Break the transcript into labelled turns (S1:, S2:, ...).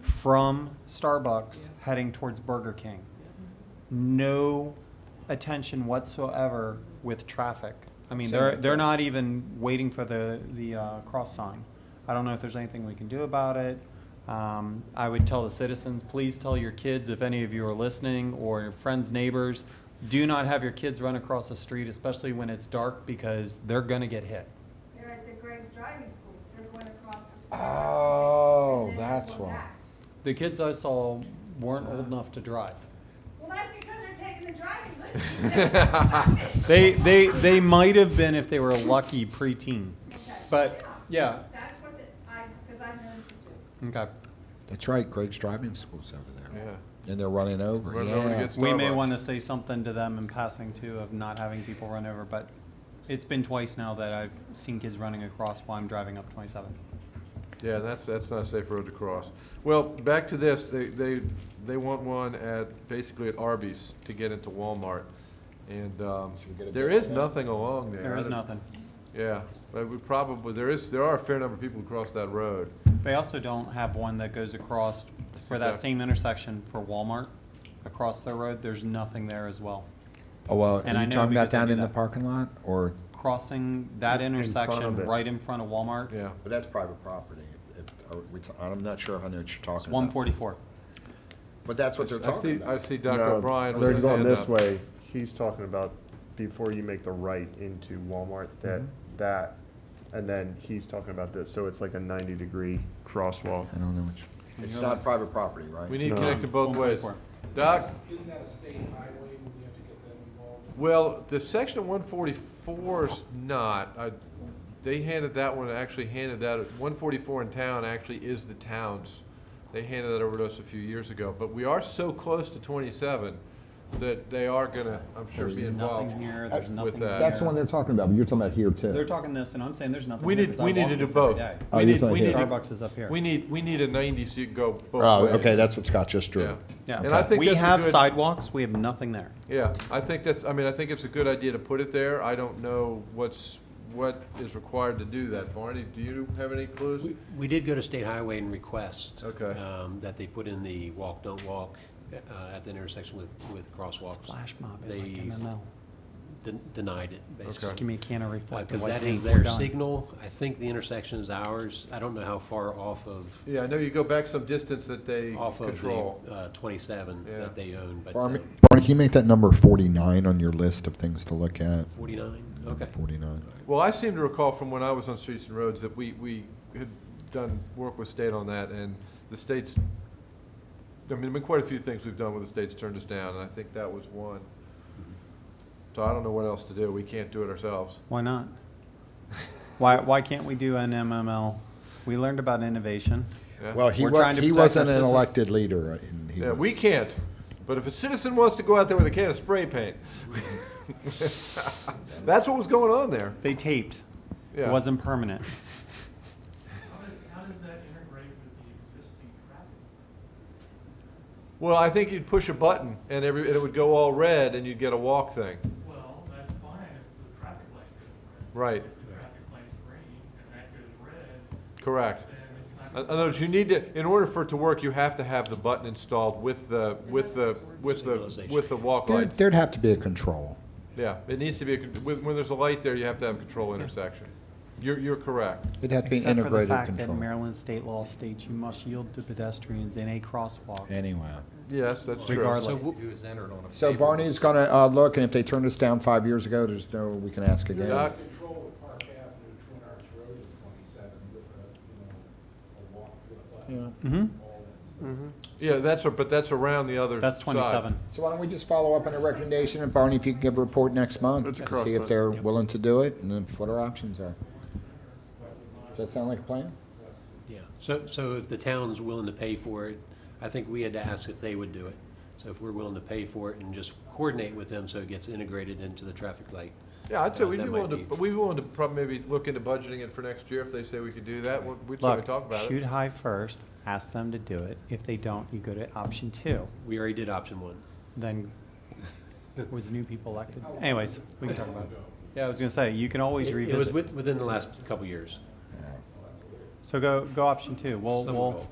S1: from Starbucks
S2: Yes.
S1: heading towards Burger King. No attention whatsoever with traffic. I mean, they're,
S3: Same.
S1: they're not even waiting for the, the uh, cross sign. I don't know if there's anything we can do about it. Um, I would tell the citizens, please tell your kids, if any of you are listening, or your friends, neighbors, do not have your kids run across the street, especially when it's dark, because they're gonna get hit.
S4: They're at the Greg's Driving School, they're going across the street.
S3: Oh,
S4: And then
S3: that's
S4: going
S3: why.
S4: back.
S1: The kids I saw weren't old enough to drive.
S4: Well, that's because they're taking the driving lessons.
S1: They, they, they might have been if they were lucky preteen,
S4: Okay.
S1: but, yeah,
S4: That's what the, I, because I know to do.
S1: okay.
S3: That's right, Greg's driving school's over there.
S5: Yeah.
S3: And they're running over,
S5: Running over to
S3: yeah.
S5: get-
S1: We may
S5: Starbucks.
S1: want to say something to them in passing too of not having people run over, but it's been twice now that I've seen kids running across while I'm driving up twenty-seven.
S5: Yeah, that's, that's not a safe road to cross. Well, back to this, they, they, they want one at, basically at Arby's to get into Walmart. And, um,
S3: Should we get a
S5: there
S3: bid
S5: is
S3: on that?
S5: nothing along there.
S1: There
S5: I
S1: is
S5: don't-
S1: nothing.
S5: Yeah, but we probably, there is, there are a fair number of people who cross that road.
S1: They also don't have one that goes across for that same intersection for Walmart, across their road, there's nothing there as well.
S3: Oh, well,
S1: And I
S3: are you
S1: know
S3: talking
S1: because
S3: about
S1: they
S3: down
S1: do
S3: in the
S1: that.
S3: parking lot, or?
S1: Crossing that
S5: In front of
S1: intersection
S5: it.
S1: right in front of Walmart,
S5: Yeah.
S3: But that's private property. If- are we t- I'm not sure how much you're
S1: it's
S3: talking
S1: one
S3: about.
S1: forty-four.
S3: But that's what they're
S5: I
S3: talking
S5: see, I
S3: about.
S5: see
S6: No,
S5: Dr. O'Brien. with
S6: They're
S5: his
S6: going
S5: hand
S6: this
S5: up.
S6: way. He's talking about before you make the right into Walmart, that, that, and then he's talking about this. So it's like a ninety degree crosswalk.
S3: I don't know which. It's not private property, right?
S5: We need
S6: No.
S5: connected both ways.
S1: 144.
S5: Doc,
S7: Isn't that a state highway, would you have to get them involved?
S5: well, the section one forty-four's not, I, they handed that one, actually handed that, one forty-four in town actually is the town's. They handed that over to us a few years ago, but we are so close to twenty-seven that they are gonna, I'm sure,
S1: There's
S5: be involved.
S1: nothing here,
S5: with
S1: there's nothing
S5: that.
S1: there.
S8: That's the one they're talking about, but you're talking about here too.
S1: They're talking this, and I'm saying there's nothing.
S5: We
S1: here
S5: need,
S1: 'cause I
S5: we need
S1: walk
S5: to do
S1: this every
S5: both.
S1: day.
S8: Oh,
S5: We
S8: you're
S5: need,
S8: talking
S5: we need,
S8: here.
S5: to-
S1: Starbucks is up here.
S5: we need, we need a ninety so you can go both
S8: Oh,
S5: ways.
S8: okay, that's what Scott just
S5: Yeah.
S8: drew.
S1: Yeah.
S5: And I think
S1: we
S5: that's a
S1: have
S5: good-
S1: sidewalks. We have nothing there.
S5: Yeah, I think that's, I mean, I think it's a good idea to put it there. I don't know what's, what is required to do that. Barney, do you have any clues?
S9: We- We did go to State Highway and request.
S5: Okay.
S9: um, That they put in the walk, don't walk uh, at the intersection with, with crosswalks.
S1: Flash mob.
S9: They
S1: Like MML.
S9: den- denied it,
S1: Just
S9: basically.
S1: give me a can of reflective
S9: Because
S1: white
S9: that
S1: paint,
S9: is
S1: we're
S9: their
S1: done.
S9: signal. I think the intersection is ours. I don't know how far off of,
S5: Yeah, I know you go back some distance that they
S9: off of the
S5: control.
S9: uh, 27
S5: Yeah.
S9: that they own, but
S3: Barney,
S9: um,
S3: Barney, can you make that number forty-nine on your list of things to look at?
S9: 49,
S3: Number
S9: okay.
S3: Forty-nine.
S5: Well, I seem to recall from when I was on Streets and Roads that we, we had done work with state on that and the state's, I mean, there've been quite a few things we've done where the state's turned us down and I think that was one.
S9: Mm-hmm.
S5: So I don't know what else to do. We can't do it ourselves.
S1: Why not? Why why can't we do an MML? We learned about innovation.
S5: Yeah.
S3: Well, he
S1: We're
S3: wa,
S1: trying to
S3: he
S1: protect our
S3: wasn't an
S1: citizens.
S3: elected leader, uh, and he
S5: Yeah,
S3: was.
S5: we can't, but if a citizen wants to go out there with a can of spray paint, that's what was going on there.
S1: They taped.
S5: Yeah.
S1: It wasn't permanent.
S7: How does, how does that integrate with the existing traffic?
S5: Well, I think you'd push a button and every, and it would go all red and you'd get a walk thing.
S7: Well, that's fine if the traffic light goes red.
S5: Right,
S7: If the traffic light's green and that goes red,
S5: correct.
S7: then it's not.
S5: In other words, you need to, in order for it to work, you have to have the button installed with the, with the, with the, with the walk
S3: There'd,
S5: lights.
S3: there'd have to be a control.
S5: Yeah, it needs to be, a con- when, when there's a light there, you have to have control intersection. You're, you're correct.
S3: It'd have to be
S1: Except for the
S3: integrated
S1: fact that
S3: control.
S1: Maryland state law states you must yield to pedestrians in a crosswalk.
S3: Anyway.
S5: Yes, that's true.
S1: Regardless.
S9: So w-
S3: So Barney's gonna, uh, look, and if they turned us down five years ago, there's no, we can ask again.
S5: Yeah.
S7: There's Control with Park Avenue, Twin Arch Road and twenty-seven with a, you know, a walk to the left,
S3: Yeah.
S1: hmm
S7: all that stuff.
S5: Yeah, that's, a- but that's around the other
S1: That's
S5: side.
S1: twenty-seven.
S3: So why don't we just follow up on a recommendation, and Barney, if you can give a report next month?
S6: It's a
S3: and
S6: cross
S3: See if
S6: vote.
S3: they're willing to do it, and then what our options are. Does that sound like a plan?
S9: Yeah, so, so if the town's willing to pay for it, I think we had to ask if they would do it. So if we're willing to pay for it and just coordinate with them so it gets integrated into the traffic light.
S5: Yeah, I'd say
S9: Uh,
S5: we'd
S9: that
S5: be
S9: might
S5: willing to,
S9: be-
S5: but we'd be willing to probably maybe look into budgeting it for next year if they say we could do that. We'd we'd certainly
S1: Look,
S5: talk about
S1: shoot
S5: it.
S1: high first. Ask them to do it. If they don't, you go to option two.
S9: We already did option one.
S1: Then was new people elected. Anyways, we can talk about it. Yeah, I was gonna say you can always
S9: It- It was
S1: revisit.
S9: with- within the last couple years.
S1: So go, go option two. We'll,
S9: Some
S1: we'll
S9: goal.